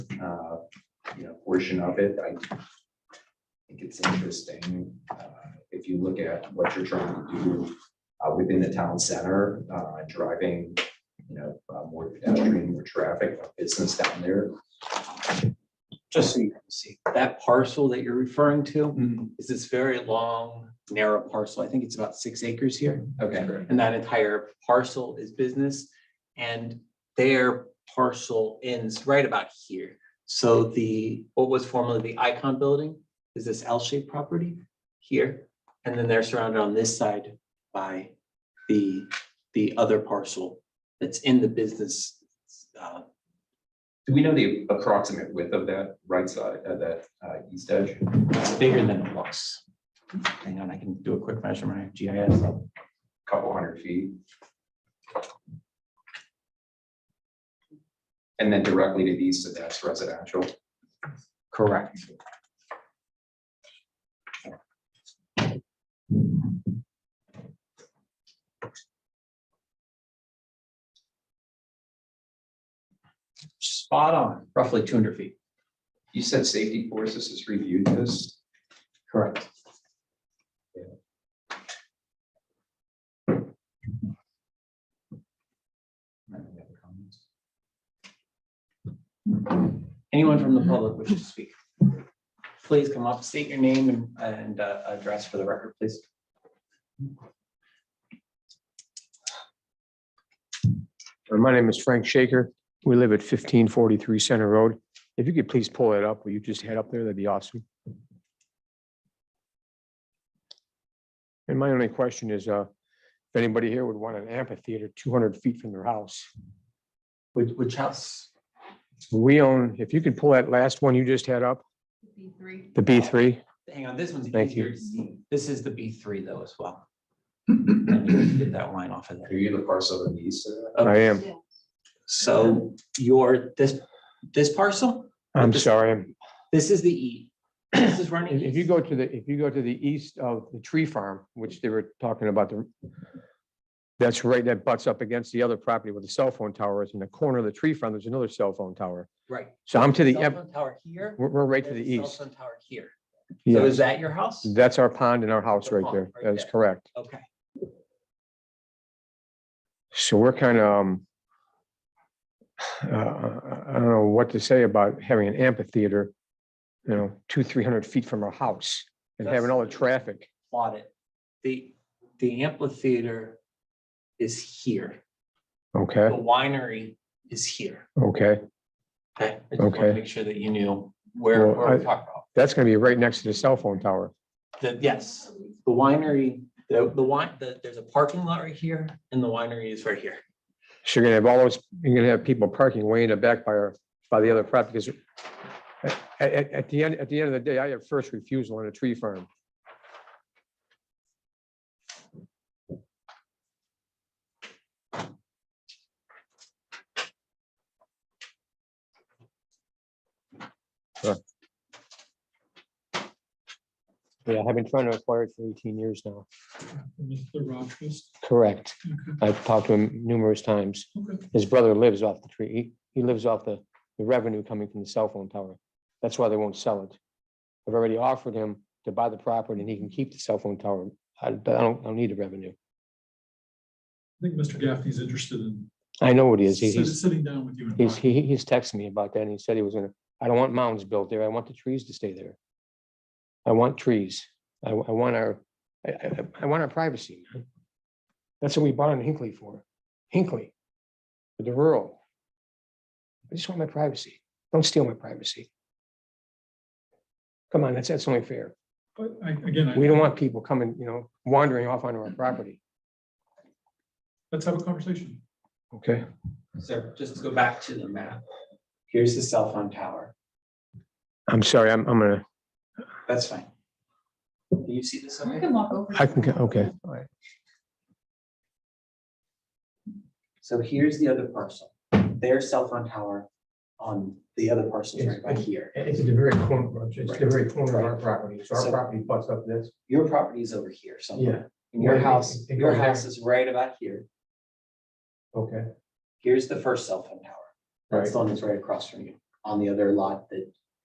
uh, portion of it, I think it's interesting. uh, If you look at what you're trying to do uh, within the town center, uh, driving, you know, uh, more pedestrian, more traffic, more business down there. Just so you can see, that parcel that you're referring to is this very long, narrow parcel. I think it's about six acres here. Okay, And that entire parcel is business. And their parcel ends right about here. So the, what was formerly the Icon Building is this L-shaped property here. And then they're surrounded on this side by the, the other parcel that's in the business. uh, do we know the approximate width of that right side, of that uh, east edge? It's bigger than it looks. Hang on, I can do a quick measurement. I have GIS. up. couple hundred feet. And then directly to the east of that's residential. Correct. Spot on, roughly two hundred feet. You said safety forces has reviewed this. Correct. Anyone from the public wishing to speak? Please come up, state your name and- and uh, address for the record, please. Uh, My name is Frank Shaker. We live at fifteen forty-three Center Road. If you could please pull it up, will you just head up there? That'd be awesome. And my only question is, uh, if anybody here would want an amphitheater two hundred feet from their house. Which, which house? We own, if you could pull that last one you just had up, B three. the B three. Hang on, this one's Thank you. easier to see. This is the B three though as well. And you can Get that line off of Are there. you the parcel of the east? of that? I am, So your, this, this parcel, I'm sorry. I'm- this is the E. This is running. If if you east. go to the, if you go to the east of the tree farm, which they were talking about, the that's right, that butts up against the other property where the cell phone tower is. In the corner of the tree farm, there's another cell phone tower. Right. So I'm to the, Cell em- phone Tower here. we're, we're right to there's the a cell east. phone Tower here. So Yes, is that your house? that's our pond and our house The right pond, there. right That is there. correct. Okay, So we're kind of, um, uh, I don't know what to say about having an amphitheater, you know, two, three hundred feet from our house and having all the That's- traffic. plot it. The, the amphitheater is here. The Okay, winery is here. okay. Okay. I just wanted to Okay. Make sure that you knew where, Well, where we're I- talking about. That's going to be right next to the cell phone tower. The, yes. The winery, the, the wine, the, there's a parking lot right here and the winery is right here. So you're gonna have all those, you're gonna have people parking way in the back by our, by the other property, because at, at, at the end, at the end of the day, I have first refusal on a tree farm. So- Yeah, I've been trying to acquire it for eighteen years now. Mr. Rogers. Correct. Okay. I've talked to him numerous times. Okay. His brother lives off the tree. He- He lives off the, the revenue coming from the cell phone tower. That's why they won't sell it. I've already offered him to buy the property and he can keep the cell phone tower. I, I don't, I don't need the revenue. I think Mr. Gaffney's interested in I know what he is. He- sit- He's, sitting down with you. and he's, talking. he, he's texted me about that and he said he was gonna, I don't want mounds built there. I want the trees to stay there. I want trees. I, wa- I want our, I, I, I want our privacy. man. That's what we bought in Hinkley for, Hinkley, for the rural. I just want my privacy. Don't steal my privacy. Come on, that's, that's only fair. But I, again, We I, don't want people coming, you know, wandering off onto our property. let's have a conversation. Okay. So just to go back to the map. Here's the cell phone tower. I'm sorry, I'm, I'm gonna, That's fine. Do you see this? We okay? can walk over. I can, go- okay. All right. So here's the other parcel. Their cell phone tower on the other parcel is right by here. It's at the very corner, it's the Right. very corner of our property, so So- our property butts up this. Your property is over here somewhere. And your Right, it- house, it your goes there. house is right about here. Okay, Here's the first cell phone tower. That's the one that's right across from you on the other lot that